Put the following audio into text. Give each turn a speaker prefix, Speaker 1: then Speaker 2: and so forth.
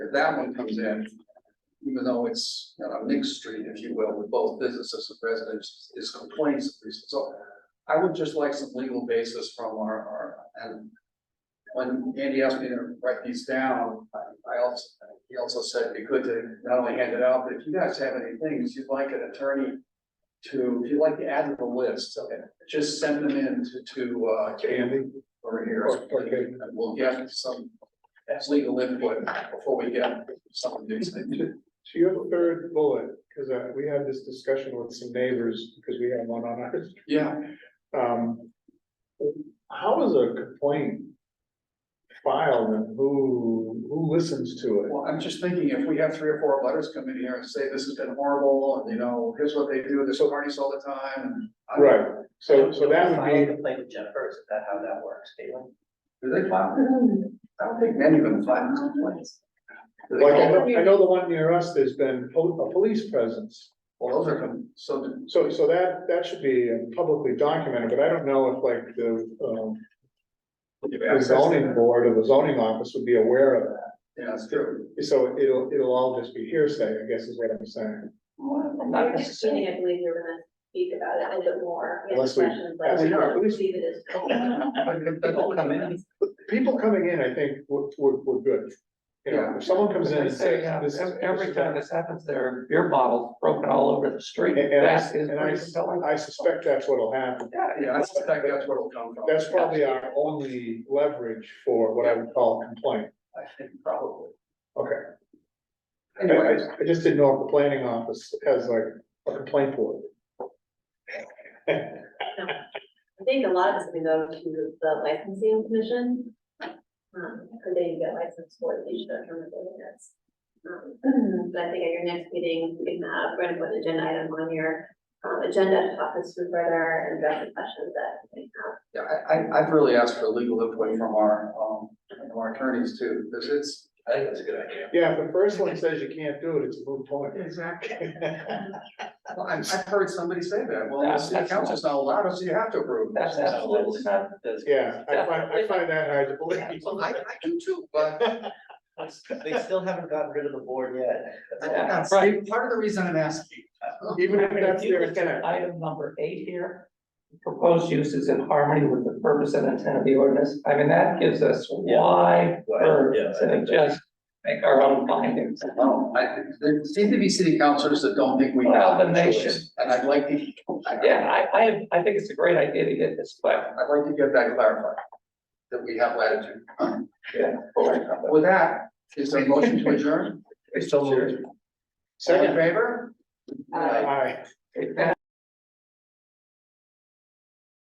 Speaker 1: that one comes in. Even though it's not on Nick Street, if you will, with both businesses and residents, is complaints at least, so. I would just like some legal basis from our, our, and. When Andy asked me to write these down, I I also, he also said it'd be good to not only hand it out, but if you guys have any things you'd like an attorney. To, if you'd like to add to the list, okay, just send them in to, to, uh, Andy over here.
Speaker 2: Okay.
Speaker 1: And We'll get some, that's legal input before we get some of these things.
Speaker 2: To your third bullet, because we had this discussion with some neighbors, because we had one on ours,
Speaker 1: Yeah,
Speaker 2: um. How is a complaint filed and who, who listens to it?
Speaker 1: well, I'm just thinking if we have three or four letters come in here and say this has been horrible and you know, here's what they do, there's parties all the time and. I don't-
Speaker 2: Right, so, so that
Speaker 3: File a
Speaker 2: would be,
Speaker 3: complaint with Jennifer, is that how that works, Caitlin?
Speaker 1: Do they file? I don't think many of them file complaints. Do they
Speaker 2: like, I
Speaker 1: call-
Speaker 2: know, I know the one near us, there's been pol- a police presence.
Speaker 1: Well, those are, com- so do-
Speaker 2: So, so that, that should be publicly documented, but I don't know if like the, um,
Speaker 1: give
Speaker 2: the
Speaker 1: access to
Speaker 2: zoning
Speaker 1: them.
Speaker 2: board or the zoning office would be aware of that.
Speaker 1: Yeah, that's true.
Speaker 2: So it'll, it'll all just be hearsay, I guess is what I'm saying.
Speaker 4: At your next meeting, I believe you're gonna speak about it a little bit more. We have
Speaker 2: Unless we-
Speaker 4: questions, but
Speaker 2: as we are,
Speaker 4: I
Speaker 2: at least-
Speaker 4: believe it is.
Speaker 3: People come in.
Speaker 2: People coming in, I think, would, would, would good. You know, if someone comes in
Speaker 5: They
Speaker 2: and
Speaker 5: say,
Speaker 2: says,
Speaker 5: yeah,
Speaker 2: this is.
Speaker 5: ev- every time this happens, there are beer bottles broken all over the street.
Speaker 2: And, and I,
Speaker 5: That is
Speaker 2: and
Speaker 5: pretty compelling.
Speaker 2: I, I suspect that's what'll happen.
Speaker 1: Yeah, I suspect that's where it'll come from.
Speaker 2: That's probably our only leverage for what I would call complaint.
Speaker 1: I think probably.
Speaker 2: Okay. I, I,
Speaker 1: Anyways,
Speaker 2: I just didn't know if the planning office has like a complaint board.
Speaker 4: I think a lot of it's gonna go to the licensing commission. Um, could they get licensed for the issue of term of ordinance? Um, But I think at your next meeting, we can have, we're gonna put an agenda item on your um, agenda to talk this through further and address the questions that we have.
Speaker 1: yeah, I, I, I've really asked for legal input from our, um, from our attorneys too, because it's. I think that's a good idea.
Speaker 2: Yeah, if the first one says you can't do it, it's a moot point.
Speaker 1: Exactly. Well, I, I've heard somebody say that, well, the
Speaker 5: That's-
Speaker 1: city
Speaker 5: that's-
Speaker 1: council's not allowed us, you have to approve.
Speaker 5: That's absolutely not. that's-
Speaker 2: Yeah, I find, I find that hard to believe.
Speaker 1: Well, I, I do too, but
Speaker 3: They still haven't gotten rid of the board yet.
Speaker 5: Yeah,
Speaker 1: that's
Speaker 5: Right.
Speaker 1: part of the reason I'm asking.
Speaker 2: Even
Speaker 5: I
Speaker 2: if
Speaker 5: mean,
Speaker 2: that's
Speaker 5: If you
Speaker 2: their
Speaker 5: look at
Speaker 2: intent.
Speaker 5: item number eight here, proposed use is in harmony with the purpose and intent of the ordinance. I mean, that gives us wide
Speaker 3: Wide, yeah,
Speaker 5: berth
Speaker 3: I
Speaker 5: to
Speaker 3: think
Speaker 5: just make our own findings.
Speaker 1: No, I, there seem to be city councilors that don't think we have
Speaker 5: Well, then
Speaker 1: a
Speaker 5: they
Speaker 1: choice, and I'd like to. I-
Speaker 5: Yeah, I, I, have- I think it's a great idea to get this, but
Speaker 1: I'd like to get that clarified, that we have latitude.
Speaker 5: yeah.
Speaker 1: With that, is there a motion to adjourn?
Speaker 5: It's still.
Speaker 1: All in
Speaker 2: Second,
Speaker 1: favor?
Speaker 2: aye.
Speaker 5: Take that.